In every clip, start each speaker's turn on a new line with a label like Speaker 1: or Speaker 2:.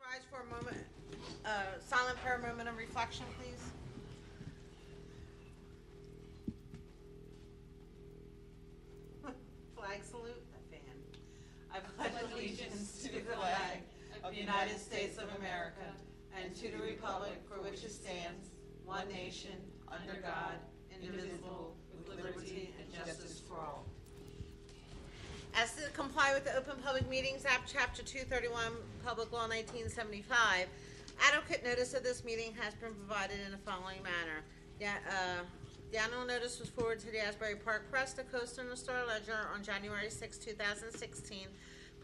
Speaker 1: rise for a moment, uh, silent prayer moment of reflection, please? Flag salute, a fan. I pledge allegiance to the flag of the United States of America and to the republic for which it stands, one nation, under God, indivisible, with liberty and justice for all. As to comply with the Open Public Meetings Act, Chapter 231, Public Law 1975, adequate notice of this meeting has been provided in the following manner. Yeah, uh, The annual notice was forwarded to the Asbury Park Press, the Coaster, and the Star Ledger on January 6, 2016,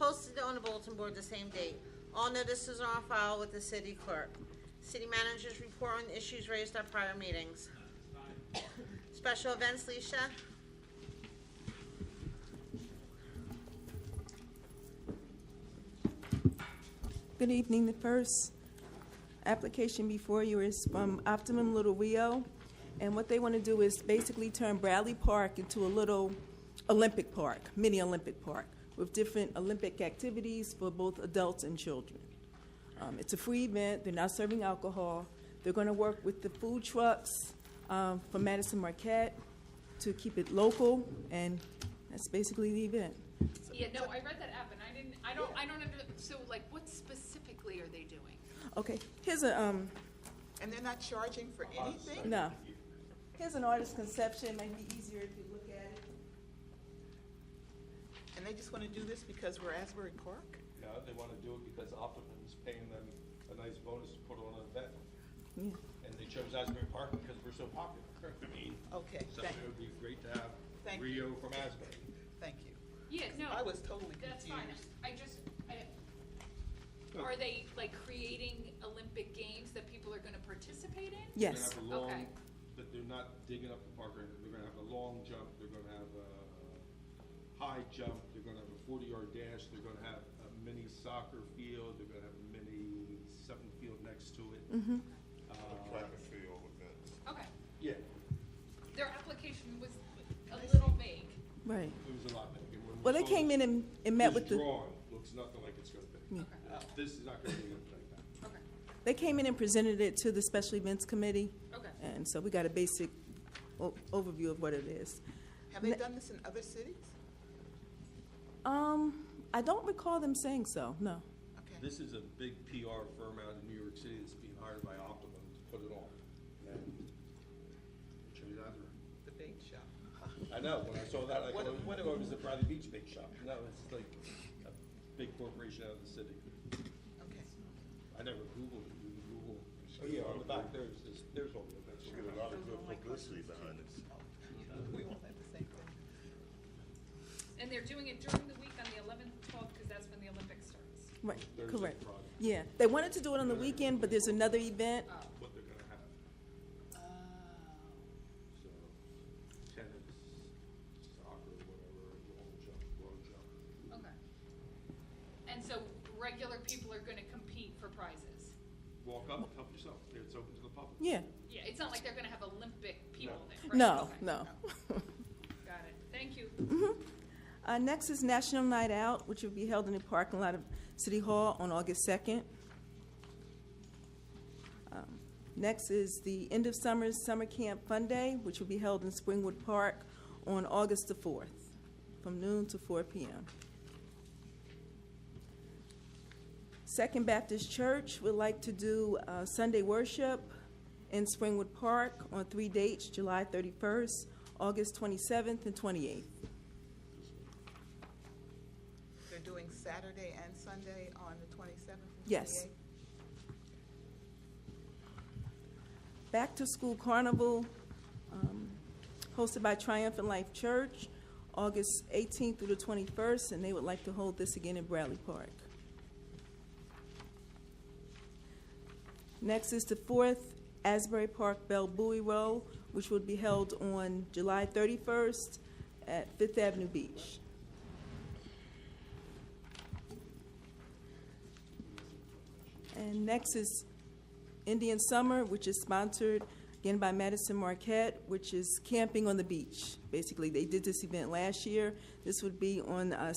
Speaker 1: posted on the bulletin board the same date. All notices are on file with the city clerk. City managers report on issues raised at prior meetings. Special events, Leisha?
Speaker 2: Good evening. The first application before you is from Optimum Little Rio. And what they want to do is basically turn Bradley Park into a little Olympic Park, mini Olympic Park, with different Olympic activities for both adults and children. Um, it's a free event. They're not serving alcohol. They're going to work with the food trucks um, from Madison Marquette to keep it local, and that's basically the event.
Speaker 3: Yeah, no, I read that app and I didn't, I don't, I don't under, so like, what specifically are they doing?
Speaker 2: Okay, here's a um,
Speaker 4: And they're not charging for anything?
Speaker 2: No. Here's an artist's conception, it might be easier if you look at it.
Speaker 4: And they just want to do this because we're Asbury Park?
Speaker 5: Yeah, they want to do it because Optimum's paying them a nice bonus to put on an event. And they chose Asbury Park because we're so popular. I mean,
Speaker 4: Okay,
Speaker 5: so
Speaker 4: thank,
Speaker 5: it would be great to have
Speaker 4: Thank
Speaker 5: Rio from Asbury.
Speaker 4: thank you.
Speaker 3: Yeah, no.
Speaker 4: I was totally
Speaker 3: That's fine,
Speaker 4: confused.
Speaker 3: I just, I, are they like creating Olympic games that people are gonna participate in?
Speaker 2: Yes.
Speaker 5: They're gonna have a long,
Speaker 3: Okay.
Speaker 5: but they're not digging up the park, or anything. they're gonna have a long jump, they're gonna have a high jump, they're gonna have a forty-yard dash, they're gonna have a mini soccer field, they're gonna have a mini something field next to it.
Speaker 2: Mm-hmm.
Speaker 5: Uh,
Speaker 6: track and field events.
Speaker 3: Okay,
Speaker 5: Yeah,
Speaker 3: their application was a little vague.
Speaker 2: Right.
Speaker 5: It was a lot bigger. When we
Speaker 2: Well, they
Speaker 5: saw
Speaker 2: came in
Speaker 5: this-
Speaker 2: and, and met with the,
Speaker 5: This drawing looks nothing like it's gonna be. Uh,
Speaker 3: Okay,
Speaker 5: This is not gonna be anything like that.
Speaker 3: okay,
Speaker 2: they came in and presented it to the special events committee.
Speaker 3: okay.
Speaker 2: And so we got a basic o- overview of what it is.
Speaker 4: Have they done this in other cities?
Speaker 2: Um, I don't recall them saying so, no.
Speaker 4: Okay,
Speaker 5: This is a big PR firm out in New York City that's being hired by Optimum to put it on. And they chose Asbury.
Speaker 4: the bait shop.
Speaker 5: I know, when I saw that, I
Speaker 4: What-
Speaker 5: thought,
Speaker 4: what-
Speaker 5: what if it was a Bradley Beach big shop? No, it's like a big corporation out of the city.
Speaker 4: Okay,
Speaker 5: I never Googled it, you can Google. Oh, yeah, on the back, there's, this- there's all the events.
Speaker 6: Get a lot of good publicity behind it.
Speaker 4: we all have the same thing.
Speaker 3: And they're doing it during the week on the eleventh, twelfth, because that's when the Olympics starts.
Speaker 2: Right,
Speaker 5: Thursday,
Speaker 2: correct.
Speaker 5: Friday.
Speaker 2: Yeah, they wanted to do it on the weekend, but there's another event.
Speaker 3: Oh.
Speaker 5: What they're gonna have.
Speaker 4: Oh.
Speaker 5: So tennis, soccer, whatever, long jump, long jump.
Speaker 3: Okay. And so regular people are gonna compete for prizes?
Speaker 5: Walk up, help yourself. It's open to the public.
Speaker 2: Yeah,
Speaker 3: Yeah, it's not like they're gonna have Olympic people
Speaker 5: No.
Speaker 3: there. right?
Speaker 2: no,
Speaker 3: Okay.
Speaker 2: no.
Speaker 3: Got it, thank you.
Speaker 2: Uh, next is National Night Out, which will be held in the parking lot of City Hall on August 2nd. Um, Next is the End of Summer Summer Camp Fun Day, which will be held in Springwood Park on August the 4th, from noon to 4 p.m. Second Baptist Church would like to do uh, Sunday worship in Springwood Park on three dates, July 31st, August 27th, and 28th.
Speaker 4: They're doing Saturday and Sunday on the twenty-seventh and
Speaker 2: Yes.
Speaker 4: 28th?
Speaker 2: Back to School Carnival, um, hosted by Triumphant Life Church, August 18th through the 21st, and they would like to hold this again in Bradley Park. Next is the fourth Asbury Park Bell Buoy Roll, which will be held on July 31st at Fifth Avenue Beach. And next is Indian Summer, which is sponsored again by Madison Marquette, which is camping on the beach. Basically, they did this event last year. This would be on uh,